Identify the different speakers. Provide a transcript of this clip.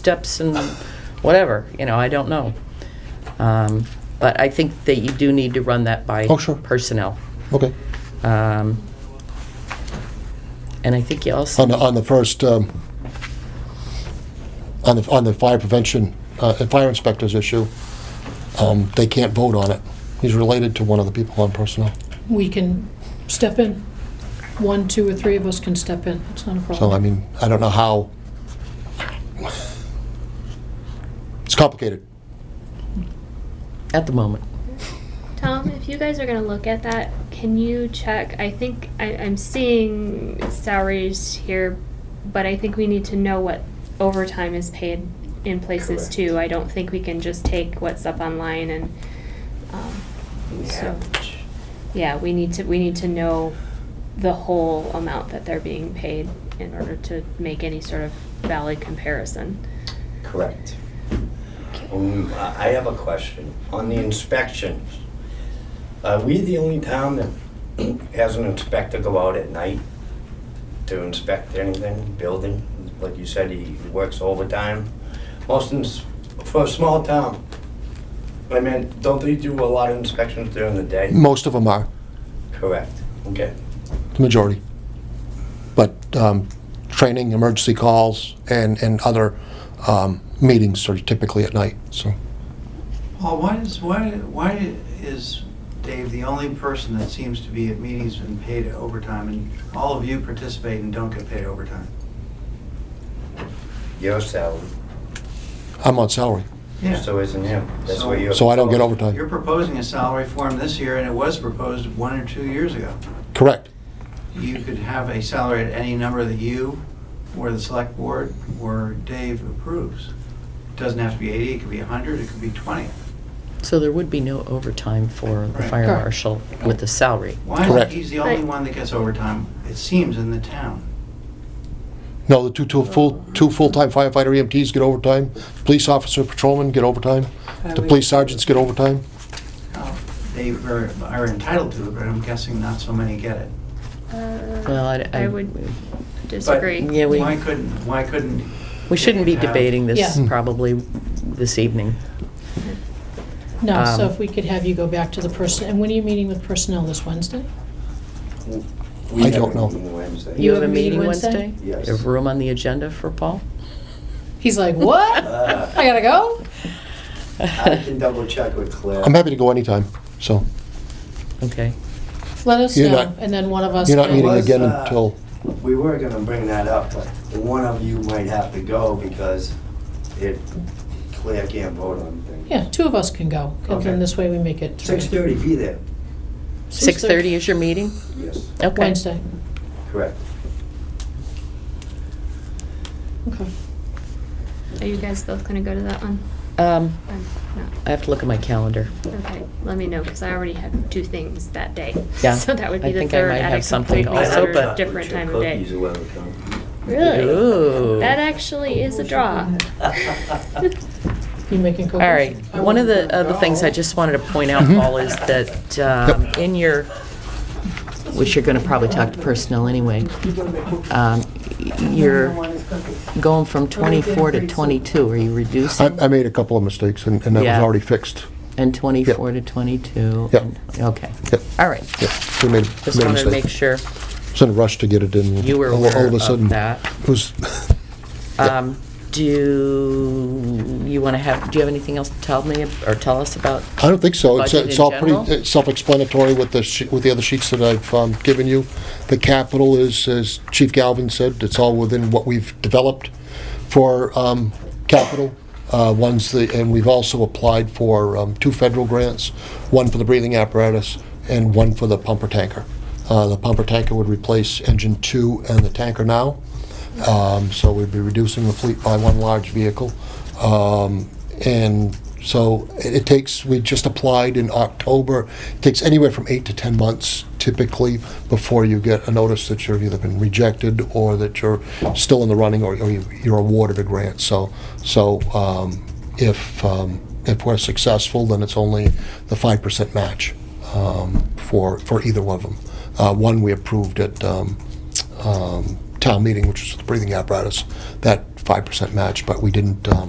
Speaker 1: steps and whatever, you know, I don't know. Um, But I think that you do need to run that by
Speaker 2: Oh, sure.
Speaker 1: personnel.
Speaker 2: Okay.
Speaker 1: Um, And I think you also,
Speaker 2: On the, on the first, um, on the, on the fire prevention, uh, and fire inspectors issue, um, they can't vote on it. He's related to one of the people on personnel.
Speaker 3: we can step in. One, two, or three of us can step in. It's not a problem.
Speaker 2: So, I mean, I don't know how. It's complicated.
Speaker 1: at the moment,
Speaker 4: Tom, if you guys are gonna look at that, can you check? I think I, I'm seeing salaries here, but I think we need to know what overtime is paid in places
Speaker 5: Correct.
Speaker 4: too. I don't think we can just take what's up online and um, so yeah, we need to we need to know the whole amount that they're being paid in order to make any sort of valid comparison.
Speaker 5: Correct. Um, I I have a question. On the inspections, are we the only town that has an inspector go out at night to inspect anything, building? Like you said, he works overtime. Most, ins- for a small town, I mean, don't they do a lot of inspections during the day?
Speaker 2: Most of them are,
Speaker 5: Correct. Okay.
Speaker 2: the majority. But, um, training, emergency calls, and, and other, um, meetings are typically at night, so.
Speaker 6: Well, why is, why, why is Dave the only person that seems to be at meetings and paid overtime, and all of you participate and don't get paid overtime?
Speaker 5: Your salary,
Speaker 2: I'm on salary,
Speaker 6: Yeah.
Speaker 5: so isn't him. That's
Speaker 6: So-
Speaker 5: where you're.
Speaker 2: so I don't get overtime.
Speaker 6: You're proposing a salary for him this year, and it was proposed one or two years ago.
Speaker 2: Correct.
Speaker 6: You could have a salary at any number that you, or the select board, or Dave approves. Doesn't have to be 80, it could be 100, it could be 20.
Speaker 1: so there would be no overtime for the
Speaker 6: Right.
Speaker 1: fire
Speaker 3: Correct.
Speaker 1: marshal with the salary.
Speaker 6: Why
Speaker 2: Correct.
Speaker 6: is he's the only
Speaker 4: Right.
Speaker 6: one that gets overtime, it seems, in the town?
Speaker 2: No, the two, two full, two full-time firefighter EMTs get overtime, police officer, patrolmen get overtime, the police sergeants get overtime.
Speaker 6: Now, They are are entitled to it, but I'm guessing not so many get it.
Speaker 1: Well, I- I-
Speaker 4: Uh, would disagree.
Speaker 1: Yeah, we-
Speaker 6: Why couldn't, why couldn't?
Speaker 1: We shouldn't be
Speaker 6: Dave have-
Speaker 1: debating this
Speaker 3: Yeah.
Speaker 1: probably this evening.
Speaker 3: No, so
Speaker 1: um,
Speaker 3: if we could have you go back to the person, and when are you meeting with personnel this Wednesday?
Speaker 5: We
Speaker 2: I
Speaker 5: have
Speaker 2: don't
Speaker 5: a
Speaker 2: know.
Speaker 5: meeting Wednesday.
Speaker 1: You have a meeting
Speaker 3: Wednesday?
Speaker 1: Wednesday?
Speaker 5: Yes.
Speaker 1: You have room on the agenda for Paul?
Speaker 3: He's like, what?
Speaker 5: Uh.
Speaker 3: I gotta go?
Speaker 5: I can double check with Claire.
Speaker 2: I'm happy to go anytime, so.
Speaker 1: Okay.
Speaker 3: Let us
Speaker 2: You're
Speaker 3: know,
Speaker 2: not-
Speaker 3: and then one of us.
Speaker 2: You're not
Speaker 3: can-
Speaker 2: meeting
Speaker 5: was,
Speaker 2: again
Speaker 5: uh,
Speaker 2: until,
Speaker 5: We were gonna bring that up, but one of you might have to go because it, Claire can't vote on things.
Speaker 3: Yeah, two of us can go, and then
Speaker 5: Okay.
Speaker 3: this way we make it. three.
Speaker 5: Six thirty, be there.
Speaker 1: 6:30 is your meeting?
Speaker 5: Yes.
Speaker 1: Okay.
Speaker 3: Wednesday.
Speaker 5: Correct.
Speaker 3: Okay.
Speaker 4: Are you guys both gonna go to that one?
Speaker 1: Um,
Speaker 4: I'm not.
Speaker 1: I have to look at my calendar.
Speaker 4: Okay, let me know, because I already have two things that day.
Speaker 1: Yeah,
Speaker 4: So that would
Speaker 1: I
Speaker 4: be the
Speaker 1: think I
Speaker 4: third
Speaker 1: might
Speaker 4: at
Speaker 1: have
Speaker 4: a
Speaker 1: something
Speaker 4: completely
Speaker 1: also,
Speaker 4: other
Speaker 1: but-
Speaker 4: different time of
Speaker 5: Cookies
Speaker 4: day.
Speaker 5: are welcome.
Speaker 1: Ooh.
Speaker 4: That actually is a draw.
Speaker 3: You making
Speaker 1: All
Speaker 3: cookies?
Speaker 1: right. One of the other things I just wanted to point out,
Speaker 2: Mm-hmm.
Speaker 1: Paul, is that um, in your, which you're going to probably talk to personnel anyway, um, you're going from 24 to 22. Are you
Speaker 2: I,
Speaker 1: reducing?
Speaker 2: I made a couple of mistakes, and, and that was
Speaker 1: Yeah.
Speaker 2: already fixed.
Speaker 1: And 24 to 22?
Speaker 2: Uh, Yep.
Speaker 1: Okay.
Speaker 2: Yep.
Speaker 1: All right.
Speaker 2: Yeah, we made,
Speaker 1: Just
Speaker 2: made a
Speaker 1: wanted to make
Speaker 2: mistake.
Speaker 1: sure
Speaker 2: It's in a rush to get it in.
Speaker 1: you were
Speaker 2: all- all of a
Speaker 1: aware
Speaker 2: sudden,
Speaker 1: of that.
Speaker 2: It was,
Speaker 1: Um, Do you want to have, do you have anything else to tell me or tell us about?
Speaker 2: I don't think so. It's,
Speaker 1: Budget
Speaker 2: it's
Speaker 1: in
Speaker 2: all pretty
Speaker 1: general?
Speaker 2: uh, self-explanatory with the, she- with the other sheets that I've um, given you. The capital is, as Chief Galvin said, it's all within what we've developed for um, capital. Uh, One's the, and we've also applied for um, two federal grants, one for the breathing apparatus and one for the pumper tanker. Uh, The pumper tanker would replace engine two and the tanker now. Um, So we'd be reducing the fleet by one large vehicle. Um, And so it it takes, we just applied in October, It takes anywhere from eight to 10 months typically before you get a notice that you've either been rejected or that you're still in the running or or you- you're awarded a grant. So, so um, if, um, if we're successful, then it's only the 5% match um, for, for either one of them. Uh, One we approved at um, um, town meeting, which was the breathing apparatus, that 5% match, but we didn't um,